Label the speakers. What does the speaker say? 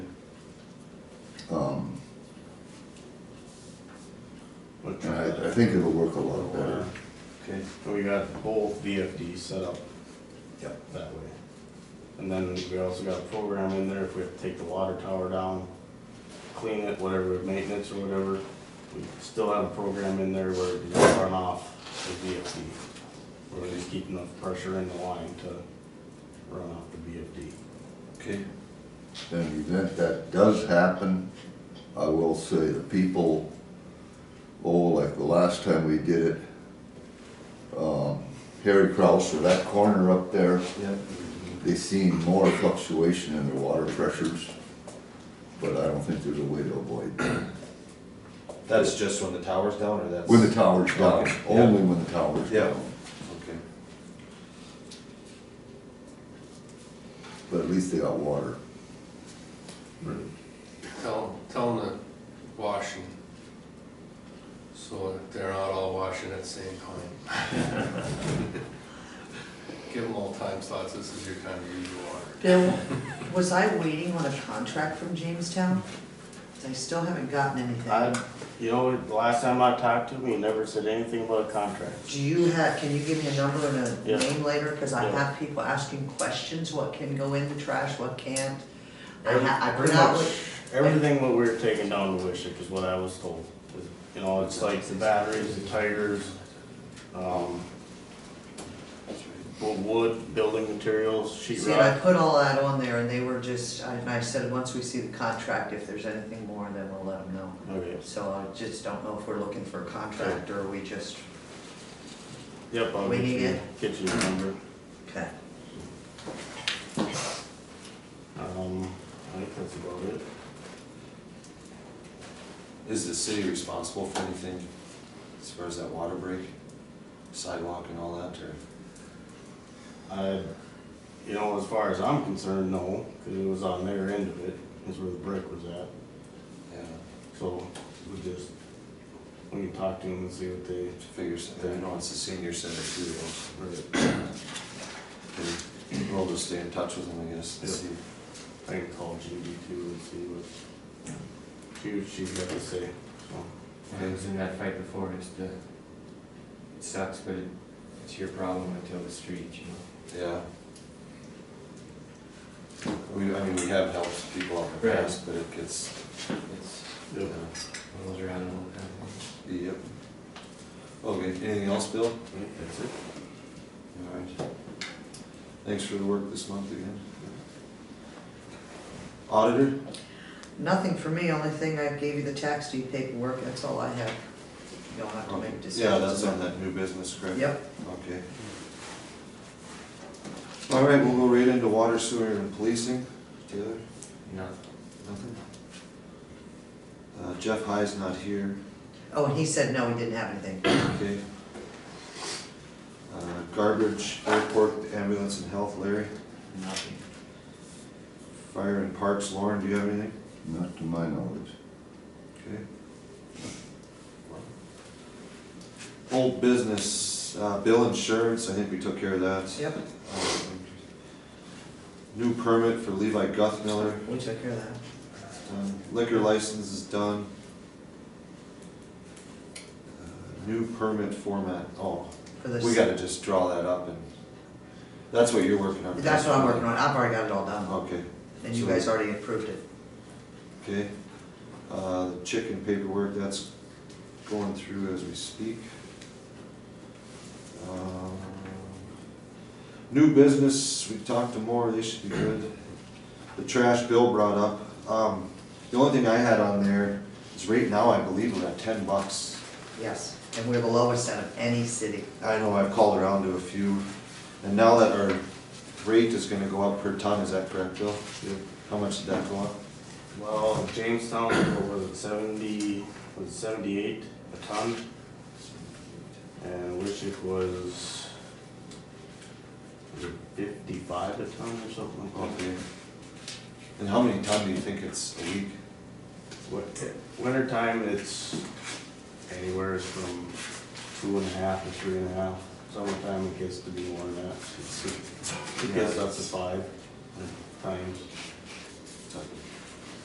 Speaker 1: Um,
Speaker 2: But,
Speaker 1: And I,
Speaker 2: uh,
Speaker 1: I think it'll work a lot better.
Speaker 3: Okay.
Speaker 2: So we got both VFDs set up
Speaker 3: Yep.
Speaker 2: that way. And then we also got a program in there, if we have to take the water tower down, clean it, whatever, maintenance or whatever, we still have a program in there where it doesn't run off the VFD. Where we just keep enough pressure in the line to run off the VFD.
Speaker 3: Okay.
Speaker 1: In the event that does happen, I will say the people, oh, like the last time we did it, um, Harry Krause, or that corner up there,
Speaker 3: Yep.
Speaker 1: they seen more fluctuation in their water pressures, but I don't think there's a way to avoid that.
Speaker 3: That's just when the tower's down, or that's?
Speaker 1: When the tower's down, only when the tower's
Speaker 3: Yeah.
Speaker 1: down.
Speaker 3: Okay.
Speaker 1: But at least they got water.
Speaker 4: Tell, tell them to wash and, so that they're not all washing at the same time. Give them all time slots, this is your time to use your water.
Speaker 5: Bill, was I waiting on a contract from Jamestown? 'Cause I still haven't gotten anything.
Speaker 2: I, you know, the last time I talked to him, he never said anything about a contract.
Speaker 5: Do you have, can you give me a number and
Speaker 2: Yeah.
Speaker 5: a name later? Cause I
Speaker 2: Yeah.
Speaker 5: have people asking questions, what can go in the trash, what can't? I
Speaker 2: Every-
Speaker 5: ha- I
Speaker 2: pretty
Speaker 5: forgot
Speaker 2: much
Speaker 5: what-
Speaker 2: Everything what we were taking down to Wishick is what I was told. is, You know, it's like the batteries, the tires, um, wo- wood, building materials, sheet
Speaker 5: See, and I
Speaker 2: rock.
Speaker 5: put all that on there and they were just, I- and I said, once we see the contract, if there's anything more, then we'll let them know.
Speaker 2: Okay,
Speaker 5: So I just don't know if we're looking for a contract or we just,
Speaker 2: yep, I'll
Speaker 5: We
Speaker 2: get
Speaker 5: need
Speaker 2: you,
Speaker 5: it.
Speaker 2: get you the number.
Speaker 5: okay.
Speaker 2: Um, I think that's about it.
Speaker 3: Is the city responsible for anything as far as that water break, sidewalk and all that, or?
Speaker 2: I, you know, as far as I'm concerned, no, cause it was on their end of it, is where the brick was at.
Speaker 3: Yeah,
Speaker 2: So we just, we can talk to them and see what they,
Speaker 3: figures, I know it's the senior center too, though.
Speaker 2: or
Speaker 3: We'll just stay in touch with them, I guess, and
Speaker 2: Yeah.
Speaker 3: see.
Speaker 2: I can call Judy too and see what she, what she's got to say, so.
Speaker 6: I was in that fight before, it's the, it sucks, but it- it's your problem until the street, you know?
Speaker 3: Yeah. We, I mean, we have helped people out in the
Speaker 6: Right.
Speaker 3: past, but it gets,
Speaker 6: It's,
Speaker 3: yeah,
Speaker 6: rolls around all the time.
Speaker 3: yep. Okay, anything else, Bill?
Speaker 2: I think That's it.
Speaker 3: All right. Thanks for the work this month again. Auditor?
Speaker 5: Nothing for me, only thing I gave you the tax deed paperwork, that's all I have. You don't have to make decisions.
Speaker 3: Yeah, that's on that new business, correct?
Speaker 5: Yep,
Speaker 3: Okay. All right, we'll go right into water, sewer, and policing. Taylor?
Speaker 6: No,
Speaker 3: Nothing? Uh, Jeff High's not here,
Speaker 5: oh, and he said no, he didn't have anything.
Speaker 3: okay. Uh, Garbage, airport, ambulance and health, Larry.
Speaker 6: nothing.
Speaker 3: Fire and parks, Lauren, do you have anything?
Speaker 1: Not to my knowledge.
Speaker 3: Okay. Old business, uh, bill insurance, I think we took care of that.
Speaker 5: Yep,
Speaker 3: Um, New permit for Levi Guthmiller,
Speaker 5: we took care of that.
Speaker 3: It's done. liquor license is done. Uh, New permit format, oh,
Speaker 5: For this-
Speaker 3: we gotta just draw that up and, that's what you're working on.
Speaker 5: That's what I'm working on, I've already got it all done,
Speaker 3: Okay,
Speaker 5: and you guys already approved it.
Speaker 3: okay. Uh, the chicken paperwork, that's going through as we speak. Um, New business, we talked to more, they should be good. The trash Bill brought up, um, the only thing I had on there is right now, I believe we're at ten bucks.
Speaker 5: Yes, and we're the lowest out of any city.
Speaker 3: I know I've called around to a few, and now that our rate is gonna go up per ton, is that correct, Bill? How much did that go up?
Speaker 2: Well, Jamestown, what was it, seventy, was it seventy-eight a ton? And Wishick was was it fifty-five a ton or something like that.
Speaker 3: Okay. And how many ton do you think it's a week?
Speaker 2: Wi- Winter time, it's anywhere from two and a half to three and a half. Summertime, it gets to be more than that. It's- It gets up to five times.
Speaker 3: It's like